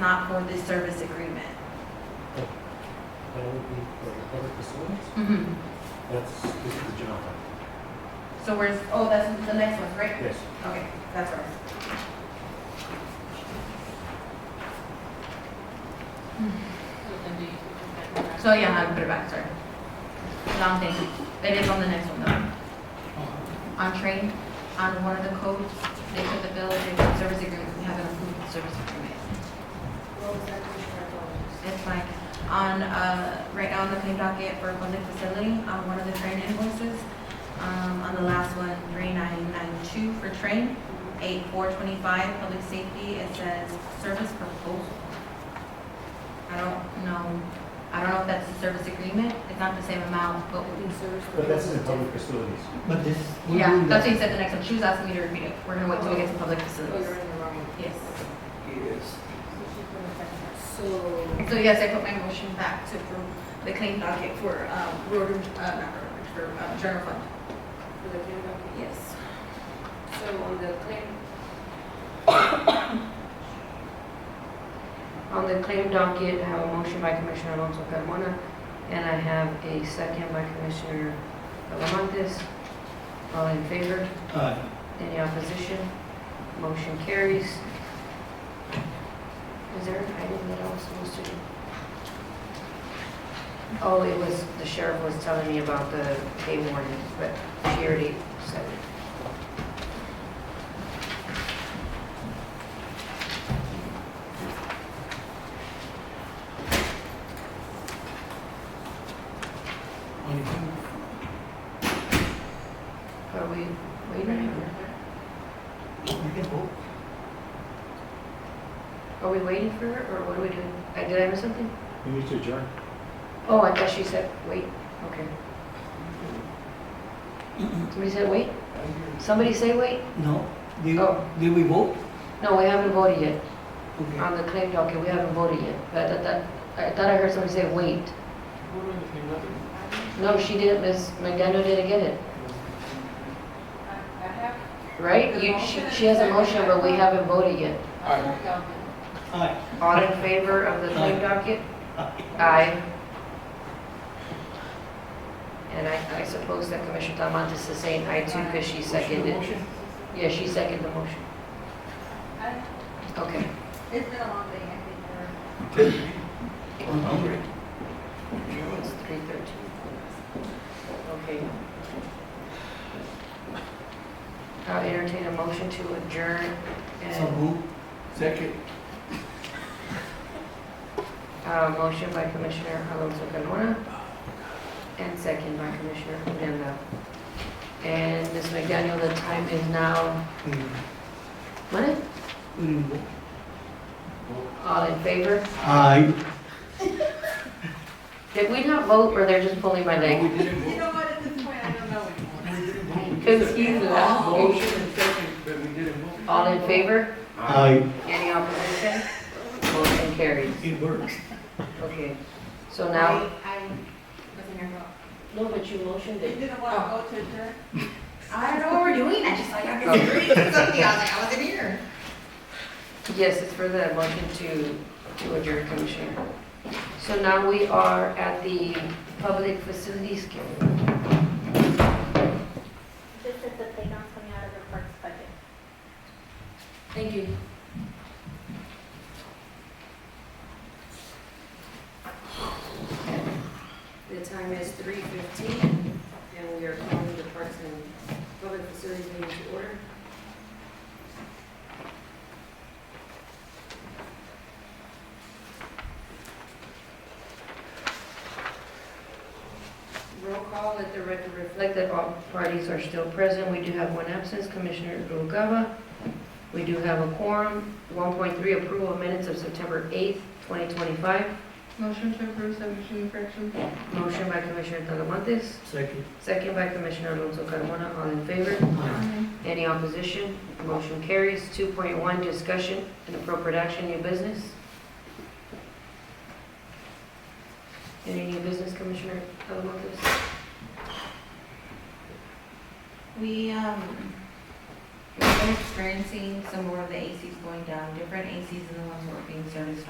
not for the service agreement. That would be for the public facilities? Mm-hmm. That's, this is the general fund. So where's, oh, that's the next one, right? Yes. Okay, that's right. So yeah, I'll put it back, sorry. Long thing. It is on the next one though. On train, on one of the codes, they put the bill, they put service agreement, we haven't approved the service agreement. It's fine. On, uh, right now on the claim docket for public facility, on one of the train invoices, um, on the last one, three nine nine two for train, eight four twenty-five, public safety, it says service proposal. I don't know, I don't know if that's the service agreement, it's not the same amount, but, But that's in the public facilities. But this. we yeah, do that's that. what you said the next one, she was asking me to repeat it, we're gonna wait till we get to public Oh, facilities. Yes, So, so yes, I put my motion back to approve the claim docket for, um, road, uh, not road, for, um, general fund, for the claim document. yes. So on the claim. On the claim docket, I have a motion by Commissioner Alonso Carmona, and I have a second by Commissioner Talamontes. All in favor? Aye. Any opposition? Motion carries. Is there an item that I was supposed to do? Oh, it was, the sheriff was telling me about the pay warning, but she already said it. Anything? Are we waiting? You can vote. Are we waiting for her, or what are we doing? Uh, Did I miss something? We need to adjourn. Oh, I thought she said, wait, okay. Somebody said, wait? Somebody say, wait? No, did, Oh. did we vote? No, we haven't voted yet. Okay. Ah. On the claim docket, we haven't voted yet, but I thought- that- I thought I heard somebody say, wait. No, she didn't, Ms. McDaniel didn't get it, right? You, she, she has a motion, but we haven't voted yet. Aye. All in favor of the claim docket? Aye. And I, I suppose that Commissioner Talamantes is saying aye too, because she seconded. Yeah, she seconded the motion. Okay. It's been a long day, I think, or. I'm hungry. It's three thirteen. Okay. I'll entertain a motion to adjourn So and, move. Second. uh, motion by Commissioner Alonso Carmona and second by Commissioner Odena. And Ms. McDaniel, the time is now, We didn't- what? we didn't vote. All in favor? Aye. Did we not vote or they're just pulling my leg? You know what, at this point, I don't know anymore. Because he's laughing. All in favor? Aye. Any opposition? Motion carries. It works. Okay, so now. I, I wasn't here about. No, but you motioned You didn't want to go to adjourn? I don't know what we're doing, I just like, I could Okay. read something, I was like, I wasn't here. Yes, it's for the motion to, to adjourn, Commissioner. So now we are at the public facilities committee. Just that they don't coming out of the parks budget. Thank you. The time is three fifteen, and we are calling the Parks and Public Facilities meeting to order. Roll call, let the record reflect that all parties are still present. We do have one absence, Commissioner Noguera. We do have a quorum. 1.3, approval of minutes of September 8th, 2025. Motion to approve submission correction? Motion by Commissioner Talamontes, Second. second by Commissioner Alonso Carmona. All in favor? Aye. Any opposition? Motion carries. 2.1, discussion and appropriate action, new business. Any new business, Commissioner Talamontes? We, um, we've been experiencing some more of the ACs going down, different ACs than the ones that were being serviced